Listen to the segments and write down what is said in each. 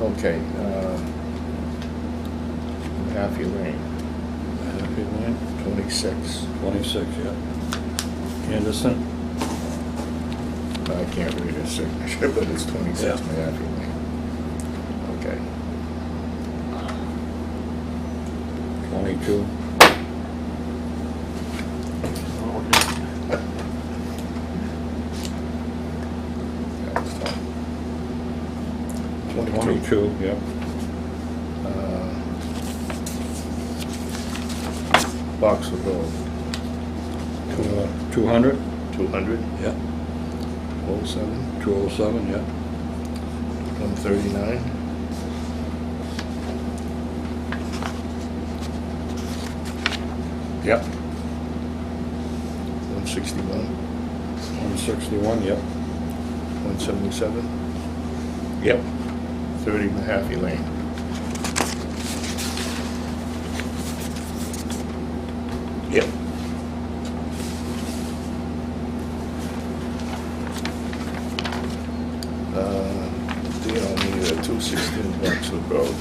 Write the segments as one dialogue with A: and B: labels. A: Okay, um, Happy Lane. Happy Lane? Twenty-six.
B: 26, yeah. Anderson?
A: I can't read his signature, but it's twenty-six
B: Yeah.
A: Happy Lane. Okay.
B: 22.
A: that was fine. Twenty-two.
B: 22, yeah.
A: Uh, Boxer Road.
B: Two- uh, 200?
A: Two hundred,
B: Yeah.
A: oh seven,
B: 207, yeah.
A: one thirty-nine.
B: Yep.
A: One sixty-one,
B: 161, yep.
A: one seventy-seven,
B: Yep.
A: thirty Mahaffey Lane.
B: Yep.
A: Uh, They don't need a two sixteen Boxwood Road.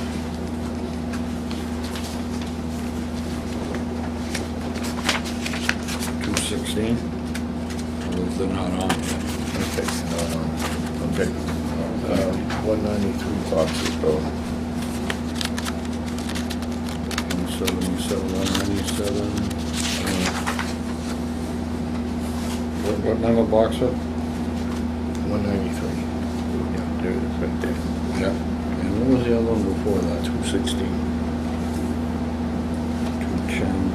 B: Two sixteen. Those are not on yet.
A: Okay, uh, okay. Uh, One ninety-three Boxwood Road.
B: One seventy-seven, one ninety-seven. What, what number box it?
A: One ninety-three. Yeah, there it is, right there.
B: Yeah. And what was the other one before that?
A: Two sixteen.
B: Two ten,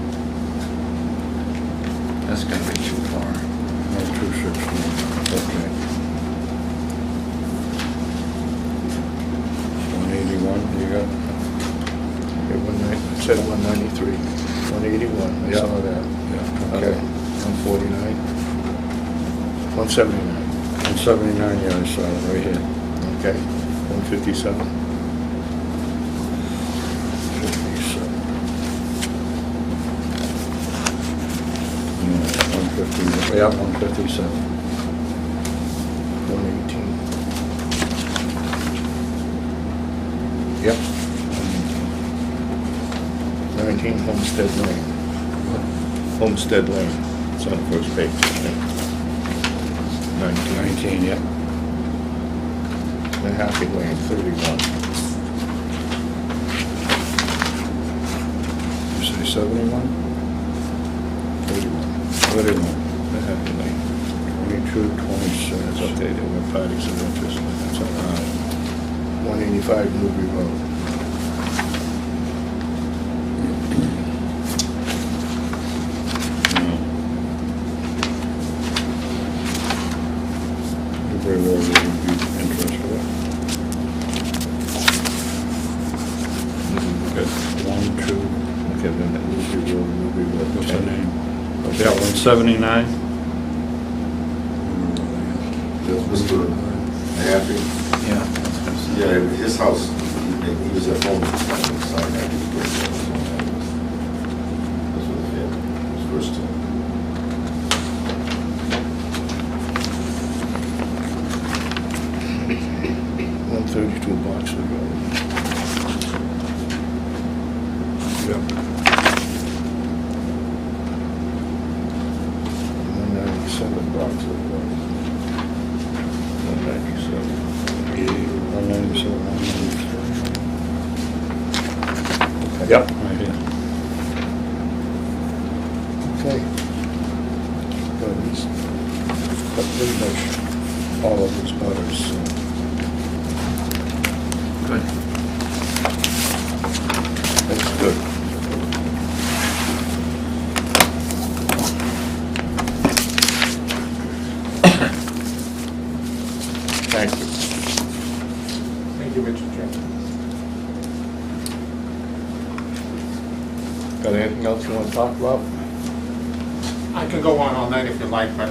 A: That's gonna be too far.
B: no, two sixteen.
A: Okay.
B: One eighty-one, you got?
A: Okay, one nine, it said one ninety-three, one eighty-one, I
B: Yeah.
A: saw that.
B: Yeah.
A: Okay, one forty-nine. One seventy-nine,
B: One seventy-nine, yeah, I saw it right here.
A: okay, one fifty-seven,
B: Fifty-seven. One fifty, yeah, one fifty-seven.
A: one eighteen.
B: Yep.
A: Nineteen Homestead Lane, Homestead Lane, it's on the first page. I think. Nineteen,
B: Nineteen, yep.
A: Mahaffey Lane, thirty-one,
B: You say seventy-one?
A: thirty-one,
B: Thirty-one.
A: Mahaffey Lane.
B: Twenty-two,
A: That's
B: twenty-six.
A: okay, there were parties of interest, but that's all right. One eighty-five Newbury Road,
B: You Very well, would be interested
A: good.
B: One, two,
A: Okay, then that Newbury Road, Newbury Road.
B: what's her
A: ten.
B: name?
A: Okay,
B: Yeah, one seventy-nine?
C: Just Mr. Happy,
B: Yeah.
C: yeah, his house, he he was at home, he was signing that, he was great. That's what he had, his first time.
A: One thirty-two Boxer Road,
B: Yep.
A: one ninety-seven Boxer Road. One ninety-seven.
B: One ninety-seven, one ninety-seven.
A: Yep.
B: Right here.
A: Okay. Well, these, but pretty much all of these butters, so. Good. That's good. Thank you.
D: Thank you, Mr. Chairman.
A: Got anything else you wanna talk about?
D: I can go on all night if you like, but